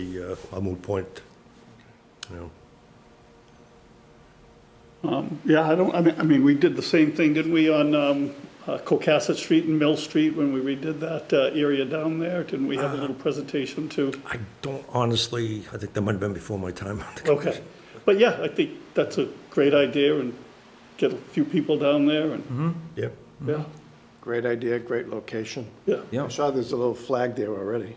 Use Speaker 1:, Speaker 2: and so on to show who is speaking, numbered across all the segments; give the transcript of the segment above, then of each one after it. Speaker 1: a uh, a moot point, you know.
Speaker 2: Yeah, I don't, I mean, I mean, we did the same thing, didn't we, on um, uh, Cocasset Street and Mill Street when we redid that uh, area down there? Didn't we have a
Speaker 3: Ah.
Speaker 2: little presentation too?
Speaker 1: I don't honestly, I think that might have been before my time. on the
Speaker 2: Okay, but yeah, I think that's a great idea and get a few people down there
Speaker 3: Mm-hmm.
Speaker 2: and,
Speaker 1: committee. Yep.
Speaker 2: yeah,
Speaker 4: Great idea, great location.
Speaker 2: yeah.
Speaker 4: I
Speaker 3: Yeah,
Speaker 4: saw there's a little flag there already.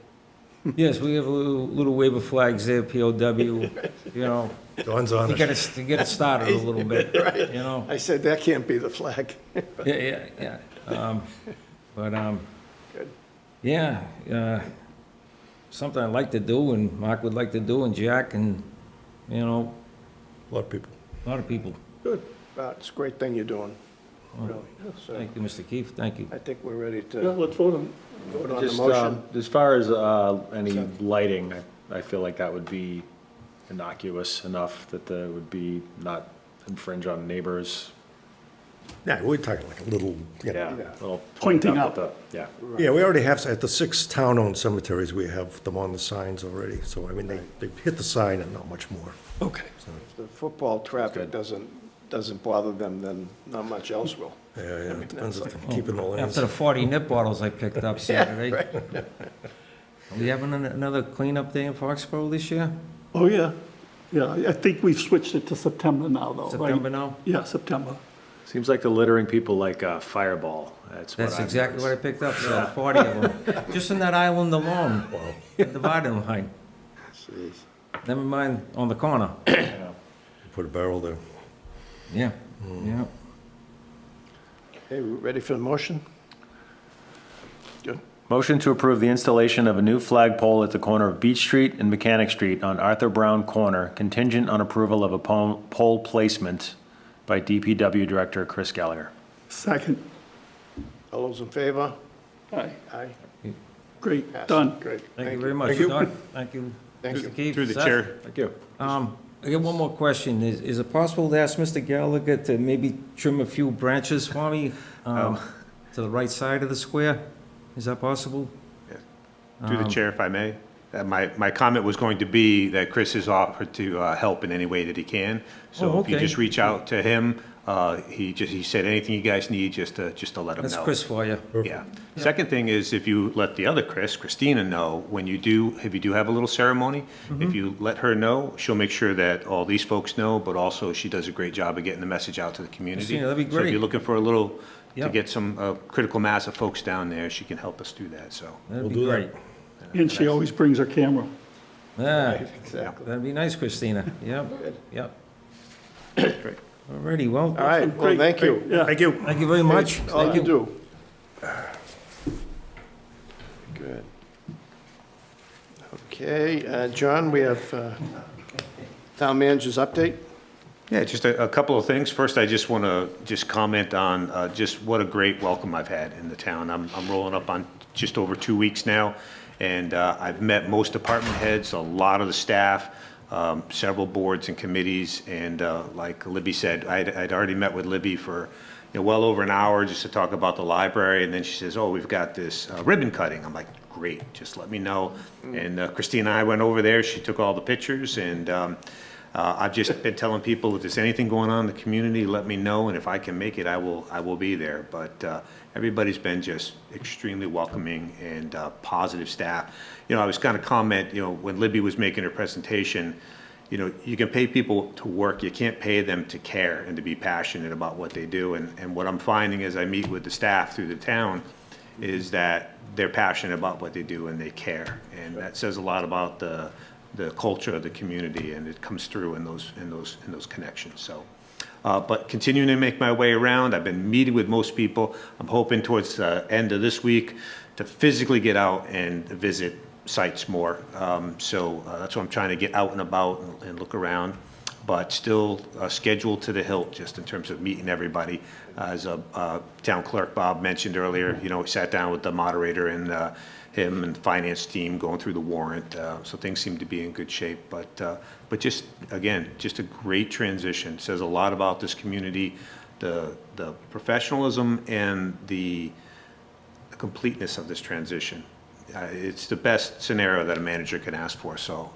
Speaker 3: yes, we have a little, little wave of flags there, POW, you know,
Speaker 1: Dawn's on
Speaker 3: to
Speaker 1: us.
Speaker 3: get us, to get us started a little bit, you know?
Speaker 4: I said, that can't be the flag.
Speaker 3: Yeah, yeah, yeah. Um, But, um,
Speaker 4: Good.
Speaker 3: yeah, uh, something I'd like to do and Mark would like to do and Jack and, you know,
Speaker 1: A lot of people.
Speaker 3: a lot of people.
Speaker 4: Good. Uh, It's a great thing you're doing, really. So
Speaker 3: Thank you, Mr. Keefe, thank you.
Speaker 4: I think we're ready
Speaker 2: Yeah,
Speaker 4: to
Speaker 2: let's vote on it.
Speaker 4: vote on the
Speaker 5: Just,
Speaker 4: motion.
Speaker 5: um, as far as, uh, any lighting, I, I feel like that would be innocuous enough that the, would be not infringe on neighbors.
Speaker 1: Yeah, we're talking like a little, you know.
Speaker 5: Yeah. little
Speaker 2: Pointing
Speaker 5: up
Speaker 2: up.
Speaker 5: at the- Yeah.
Speaker 1: Yeah, we already have, at the six town-owned cemeteries, we have them on the signs already. So, I mean, they, they hit the sign and not much more.
Speaker 4: Okay. If the football traffic
Speaker 5: Good.
Speaker 4: doesn't, doesn't bother them, then not much else will.
Speaker 1: Yeah, yeah, it depends if they're keeping the lanes.
Speaker 3: After the forty nip bottles I picked up Saturday. Are we having an- another cleanup day in Foxborough this year?
Speaker 2: Oh, yeah, yeah, I- I think we've switched it to September now, though, right?
Speaker 3: September now?
Speaker 2: Yeah, September.
Speaker 5: Seems like the littering people like, uh, Fireball. That's what
Speaker 3: That's
Speaker 5: I'm.
Speaker 3: exactly what I picked up, so forty of them, just in that island alone, divided line. Never mind on the corner,
Speaker 1: Put a barrel there.
Speaker 3: yeah, yeah.
Speaker 4: Hey, we ready for the motion? Good.
Speaker 5: Motion to approve the installation of a new flagpole at the corner of Beach Street and Mechanic Street on Arthur Brown Corner contingent on approval of a pole, pole placement by DPW Director Chris Gallagher.
Speaker 2: Second,
Speaker 4: All those in favor?
Speaker 2: aye,
Speaker 4: Aye.
Speaker 2: great,
Speaker 4: Passes.
Speaker 2: done.
Speaker 4: Great.
Speaker 3: Thank you very much,
Speaker 1: Thank you.
Speaker 3: Don, thank you.
Speaker 4: Thank
Speaker 3: Mr.
Speaker 4: you.
Speaker 3: Keefe,
Speaker 6: Through the
Speaker 3: Seth.
Speaker 6: chair,
Speaker 5: Thank you.
Speaker 3: Um, I got one more question, is, is it possible to ask Mr. Gallagher to maybe trim a few branches for me, um, to the right side of the square? Is that possible?
Speaker 6: through
Speaker 3: Um,
Speaker 6: the chair, if I may. Uh, My, my comment was going to be that Chris has offered to uh, help in any way that he can.
Speaker 3: Oh,
Speaker 6: So if you
Speaker 3: okay.
Speaker 6: just reach out to him, uh, he just, he said anything you guys need, just to, just to let him know.
Speaker 3: That's Chris for you.
Speaker 6: Yeah. Second thing is if you let the other Chris, Christina, know, when you do, if you do have a little ceremony,
Speaker 3: Mm-hmm.
Speaker 6: if you let her know, she'll make sure that all these folks know, but also she does a great job of getting the message out to the community.
Speaker 3: Christina, that'd be
Speaker 6: So if
Speaker 3: great.
Speaker 6: you're looking for a little, to
Speaker 3: Yeah.
Speaker 6: get some uh, critical mass of folks down there, she can help us do that, so.
Speaker 3: That'd be
Speaker 1: do that.
Speaker 3: great.
Speaker 2: And she always brings her camera.
Speaker 3: Yeah,
Speaker 4: Exactly.
Speaker 3: that'd be nice, Christina, yep, yep.
Speaker 6: Great.
Speaker 3: Alrighty, well,
Speaker 4: All right, well,
Speaker 2: Great,
Speaker 4: thank
Speaker 2: great,
Speaker 4: you.
Speaker 2: Yeah.
Speaker 1: Thank you.
Speaker 3: thank you very much.
Speaker 4: All
Speaker 3: Thank
Speaker 4: you Oh,
Speaker 3: you.
Speaker 4: do. Good. Okay, uh, John, we have uh, town manager's update.
Speaker 6: Yeah, just a, a couple of things. First, I just want to just comment on uh, just what a great welcome I've had in the town. I'm, I'm rolling up on just over two weeks now, and uh, I've met most department heads, a lot of the staff, um, several boards and committees, and uh, like Libby said, I'd, I'd already met with Libby for, you know, well over an hour just to talk about the library, and then she says, oh, we've got this uh, ribbon cutting. I'm like, great, just let me know. And uh, Christine and I went over there, she took all the pictures, and um, uh, I've just been telling people, if there's anything going on in the community, let me know, and if I can make it, I will, I will be there. But uh, everybody's been just extremely welcoming and uh, positive staff. You know, I was going to comment, you know, when Libby was making her presentation, you know, you can pay people to work, you can't pay them to care and to be passionate about what they do. And, and what I'm finding as I meet with the staff through the town is that they're passionate about what they do and they care. And that says a lot about the, the culture of the community, and it comes through in those, in those, in those connections, so. Uh, but continuing to make my way around, I've been meeting with most people. I'm hoping towards the end of this week to physically get out and visit sites more. Um, so, uh, that's what I'm trying to get out and about and- and look around but still uh, scheduled to the hilt, just in terms of meeting everybody. As uh, uh, Town Clerk Bob mentioned earlier, you know, we sat down with the moderator and uh, him and the finance team going through the warrant, uh, so things seem to be in good shape. But, uh, but just, again, just a great transition, says a lot about this community, the, the professionalism and the completeness of this transition. Uh, It's the best scenario that a manager can ask for, so